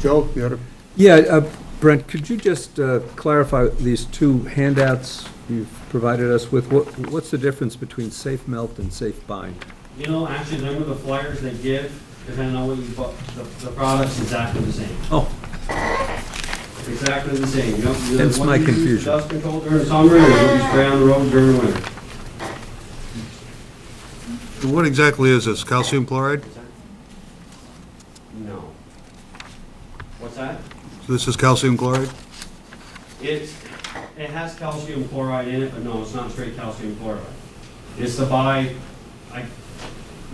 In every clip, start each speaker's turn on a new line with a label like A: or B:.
A: Joe, you had a,
B: Yeah, uh, Brent, could you just uh, clarify these two handouts you've provided us with? What, what's the difference between safe melt and safe bind?
C: You know, actually, them are the flyers they give, depending on what you bought, the, the product's exactly the same.
B: Oh,
C: It's Exactly the same. You don't- you-
B: Hence
C: what
B: my
C: you use for
B: confusion.
C: Dust control during summer and what you spray on the road during winter.
A: what exactly is this, calcium chloride?
C: No. What's that?
A: So This is calcium chloride?
C: It's, it has calcium chloride in it, but no, it's not straight calcium chloride. It's the bi, I, I'm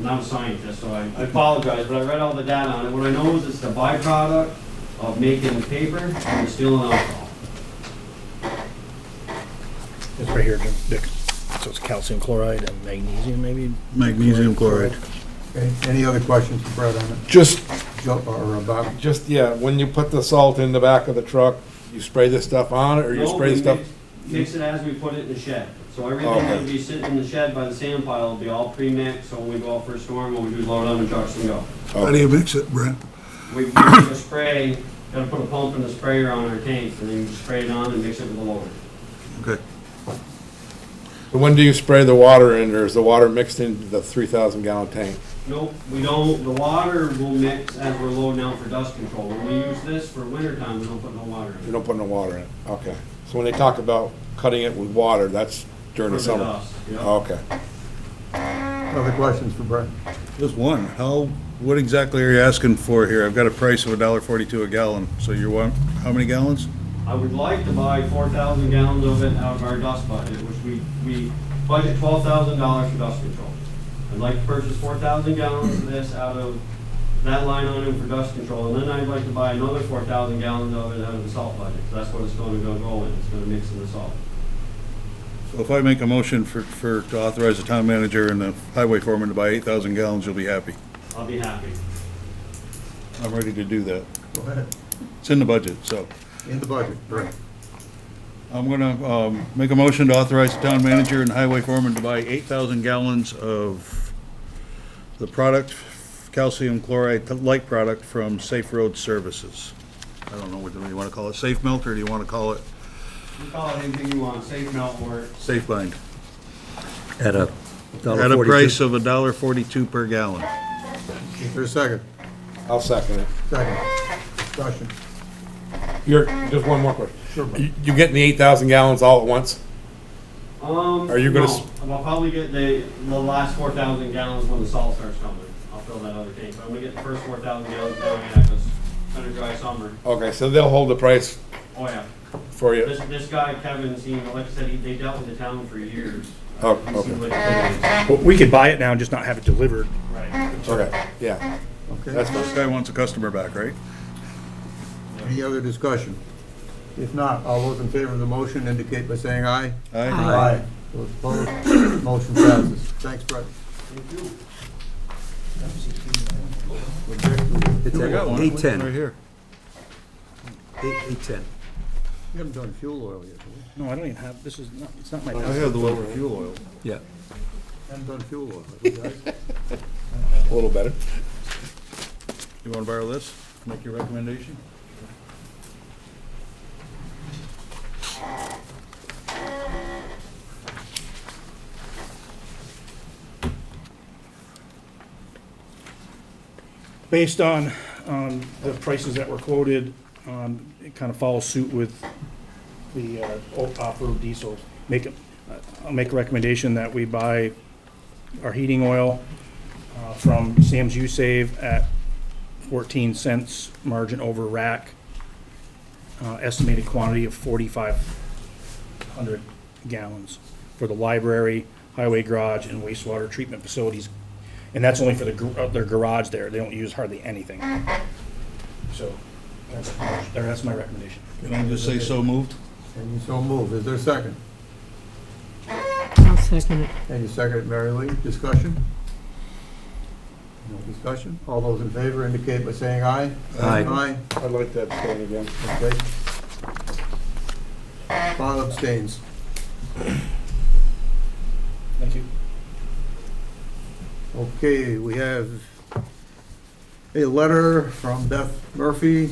C: not a scientist, so I I apologize, but I read all the data on it. What I know is it's the byproduct of making paper and distilling alcohol.
D: It's right here, Dick. So it's calcium chloride and magnesium, maybe?
A: Magnesium chloride.
E: Okay, Any other questions for Brett on it?
F: Just,
E: Joe, or uh, Bob?
F: just, yeah, when you put the salt in the back of the truck, you spray this stuff on it, or you
C: No,
F: spray
C: we
F: stuff? Oh,
C: mix- Mix it as we put it in the shed. So everything
F: Okay.
C: that would be sitting in the shed by the sand pile will be all pre-mixed, so when we go out for a storm, what we do is load it on the trucks and go.
A: How do you mix it, Brent?
C: We, we do a spray, gotta put a pump and a sprayer on our tank, and then you spray it on and mix it with the loader.
A: Okay.
F: But When do you spray the water in, or is the water mixed into the three thousand gallon tank?
C: Nope, we don't, the water will mix as we're loading out for dust control. When we use this for winter time, we don't put no water in
F: You
C: it.
F: don't put no water in it, okay. So when they talk about cutting it with water, that's during
C: For the
F: the summer?
C: dust, yeah.
F: Okay.
E: Other questions for Brett?
A: Just one, how, what exactly are you asking for here? I've got a price of a dollar forty-two a gallon, so you want, how many gallons?
C: I would like to buy four thousand gallons of it out of our dust budget, which we, we budget twelve thousand dollars for dust control. I'd like to purchase four thousand gallons of this out of that line item for dust control, and then I'd like to buy another four thousand gallons of it out of the salt budget. That's what it's gonna go go in, it's gonna mix in the salt.
A: So If I make a motion for, for, to authorize the town manager and the highway foreman to buy eight thousand gallons, you'll be happy.
C: I'll be happy.
A: I'm ready to do that.
E: Go ahead,
A: It's in the budget, so.
E: in the budget, Brett.
A: I'm gonna, um, make a motion to authorize the town manager and highway foreman to buy eight thousand gallons of the product, calcium chloride, the light product from Safe Road Services. I don't know whether you wanna call it safe melt, or do you wanna call it
C: You call it anything you want, safe melt work,
A: safe bind?
B: at a dollar
A: At a
B: forty-two.
A: price of a dollar forty-two per gallon.
E: Is there a second?
F: I'll second it.
E: Second. Discussion.
F: You're, just one more question.
E: Sure, Brett.
F: You you getting the eight thousand gallons all at once?
C: Um.
F: Are you gonna
C: no.
F: s-
C: I'll probably get the, the last four thousand gallons when the salt starts coming. I'll fill that other tank, but I'm gonna get the first four thousand gallons down here, cause it's been a dry summer.
F: Okay, so they'll hold the price
C: Oh, yeah.
F: for you?
C: This, this guy Kevin, seen, like I said, he, they dealt with the town for years.
F: Oh,
C: He's
F: okay.
C: seen what it is.
D: Well, we could buy it now and just not have it delivered.
C: Right.
F: Okay, yeah.
E: Okay,
F: That's
A: This guy wants a customer back, right?
E: any other discussion? If not, all those in favor of the motion indicate by saying aye.
A: Aye.
E: Those opposed, motion passes. Thanks, Brett.
C: Thank you.
B: It's
A: I got
B: at
A: one.
B: eight
A: Right
B: ten,
A: here.
B: eight, eight ten.
E: We haven't done fuel oil yet, have we?
D: No, I don't even have, this is not, it's not my.
A: I have the one for fuel oil.
B: Yeah.
E: Haven't done fuel oil, have we, guys?
F: A little better.
A: You wanna borrow this? Make your recommendation?
D: Based on, um, the prices that were quoted, um, it kind of follows suit with the, uh, o- off-road diesel. Make, a- I'll make a recommendation that we buy our heating oil, uh, from Sam's U Save at fourteen cents margin over rack. Uh, estimated quantity of forty-five hundred gallons for the library, highway garage, and wastewater treatment facilities and that's only for the, gar- uh, their garage there, they don't use hardly anything. So, that's, there, that's my recommendation.
A: Can I just say so moved?
E: And you so move. Is there a second?
G: I'll second it.
E: And you second it, Mary Lee. Discussion? No discussion? All those in favor indicate by saying aye.
B: Aye.
E: Aye.
F: I'd like that stand again.
E: Okay. Bob abstains.
D: Thank you.
E: Okay, we have a letter from Beth Murphy